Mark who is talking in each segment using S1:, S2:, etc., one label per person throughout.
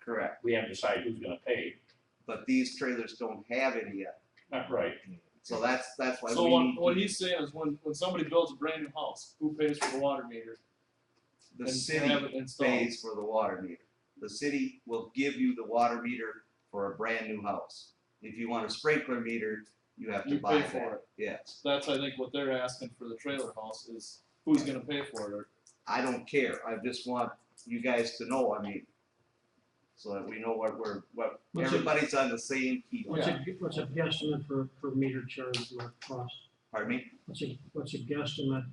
S1: Correct,
S2: We haven't decided who's gonna pay.
S1: but these trailers don't have any yet,
S2: Not right.
S1: so that's, that's why
S3: So
S1: we
S3: what, what
S1: need,
S3: he's saying is when, when somebody builds a brand new house, who pays for the water meter?
S1: the
S3: and
S1: city
S3: have it installed?
S1: pays for the water meter. The city will give you the water meter for a brand new house. If you want a sprinkler meter, you have to
S3: You
S1: buy
S3: pay
S1: that.
S3: for it.
S1: Yes,
S3: That's, I think, what they're asking for the trailer house is who's gonna pay for it or
S1: I don't care, I just want you guys to know, I mean, so that we know what we're, what,
S4: What's it-
S1: everybody's on the same key.
S4: What's a, what's a guesstimate for, for meter charge, what it costs?
S1: Pardon me?
S4: What's a, what's a guesstimate,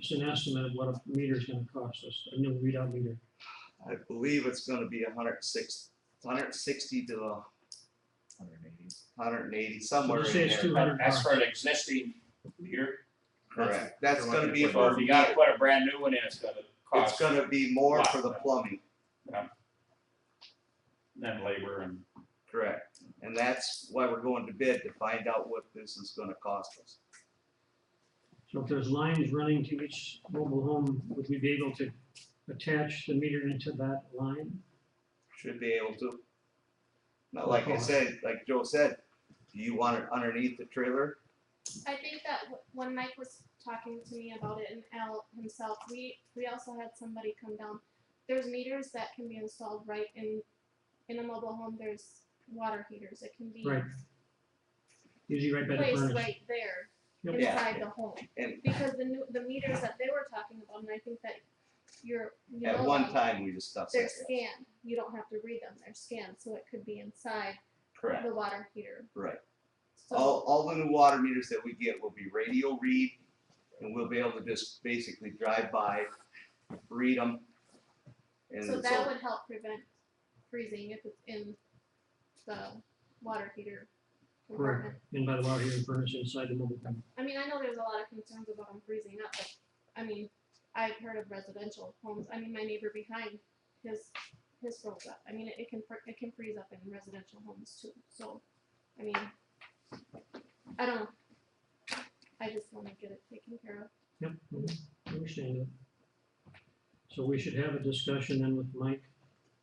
S4: just an estimate of what a meter's gonna cost us, a new readout meter?
S1: I believe it's gonna be a hundred six, hundred sixty to a hundred and eighty, somewhere
S4: So just say
S1: in
S4: it's
S1: there.
S4: two- $200.
S2: That's for an existing meter.
S1: Correct, that's
S5: You're
S1: gonna
S5: looking
S1: be
S5: for
S1: for
S2: So if you gotta
S1: meter,
S2: put a brand new one in, it's gonna
S1: it's
S2: cost,
S1: gonna be more for the
S2: Wow.
S1: plumbing,
S2: then labor and,
S1: correct. And that's why we're going to bid to find out what this is gonna cost us.
S4: So if there's lines running to each mobile home, would we be able to attach the meter into that line?
S1: Should be able to. Now, like I said, like Joe said, do you want it underneath the trailer?
S6: I think that w- when Mike was talking to me about it and Al himself, we, we also had somebody come down. There's meters that can be installed right in, in a mobile home, there's water heaters, it can be
S4: Right. Usually right by the
S6: placed
S4: furnace.
S6: right there
S4: Yep.
S1: Yeah.
S6: inside the home.
S1: And-
S6: Because the new, the meters that they were talking about, and I think that you're, you know
S1: At one
S6: them,
S1: time, we discussed
S6: They're
S1: that.
S6: scanned, you don't have to read them, they're scanned, so it could be inside
S1: Correct,
S6: the water heater,
S1: right.
S6: so.
S1: All, all the new water meters that we get will be radio read, and we'll be able to just basically drive by, read them. And
S6: So
S1: so,
S6: that would help prevent freezing if it's in the water heater compartment.
S4: And by the water heater and furnace inside the mobile home.
S6: I mean, I know there's a lot of concerns about them freezing up, but, I mean, I've heard of residential homes, I mean, my neighbor behind, his, his froze up, I mean, it- it can, fr- it can freeze up in residential homes too, so, I mean, I don't know. I just wanna get it taken care of.
S4: Yep, mhm, understand it. So we should have a discussion then with Mike.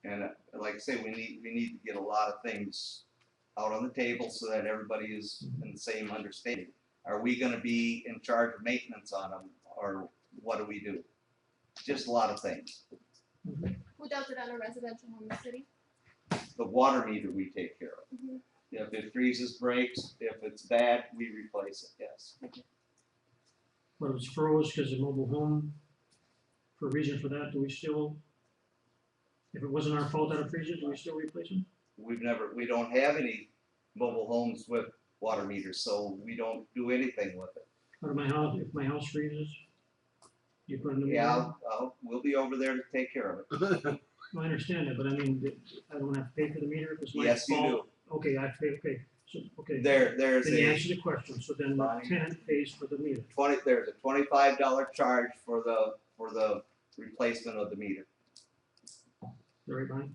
S1: and uh, like I say, we need, we need to get a lot of things out on the table so that everybody is in the same understanding. Are we gonna be in charge of maintenance on them, or what do we do? Just a lot of things.
S6: Who does it on a residential home, the city?
S1: The water meter we take care of.
S6: Mhm.
S1: If it freezes, breaks, if it's bad, we replace it, yes.
S4: But it's froze because the mobile home, for a reason for that, do we still, if it wasn't our fault that it freezes, do we still replace them?
S1: We've never, we don't have any mobile homes with water meters, so we don't do anything with it.
S4: Or my house, if my house freezes, you put in the.
S1: Yeah, I'll- I'll- we'll be over there to take care of it.
S4: I understand that, but I mean, th- I don't have to pay for the meter if it's my fault.
S1: Yes, you
S4: Okay, I pay, okay, so,
S1: do.
S4: okay.
S1: There, there's
S4: Then you
S1: a
S4: answer the question, so then the
S1: Fine.
S4: tenant pays for the meter.
S1: twenty, there's a twenty-five dollar charge for the, for the replacement of the meter.
S4: Is that right, Bonnie?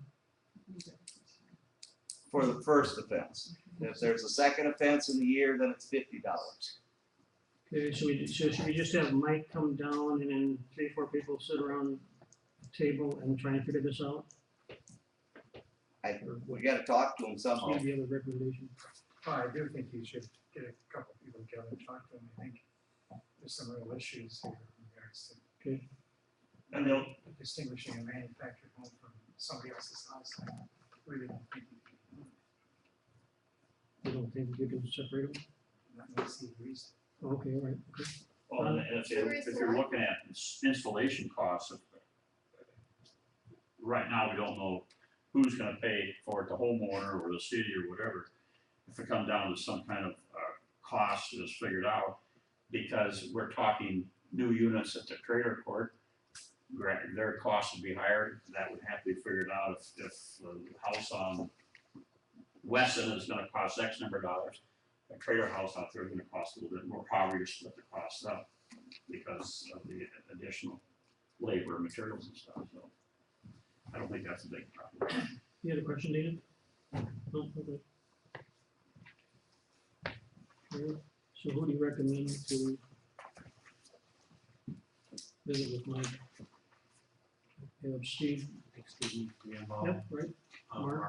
S1: For the first offense. If there's a second offense in the year, then it's fifty dollars.
S4: Okay, so we, so should we just have Mike come down and then three, four people sit around the table and try and figure this out?
S1: I-
S4: Or what,
S1: We gotta talk to them somehow.
S4: maybe other recommendation?
S5: I do think you should get a couple people together and talk to them. I think there's some real issues here in regards to.
S4: Okay.
S5: And they'll distinguishing a manufactured home from somebody else's house. I really don't think you can,
S4: You don't think you can separate them? Oh,
S5: not really see the reason.
S4: Okay, all right, okay.
S2: well, and if, if you're looking at installation costs. of- Right now, we don't know who's gonna pay for it, the homeowner or the city or whatever. If it comes down to some kind of, uh, cost that's figured out, because we're talking new units at the trailer court. Granted, their cost would be higher, that would have to be figured out if, if the house on Weston is gonna cost X number of dollars. a trailer house out there is gonna cost a little bit more, however you split the cost up because of the additional labor, materials and stuff, so. I don't think that's a big problem.
S4: You had a question, David? No, okay. Alright, So who do you recommend to visit with Mike? You have Steve,
S7: think Steve needs to be involved.
S4: yep, right,
S7: Um,
S4: Mark.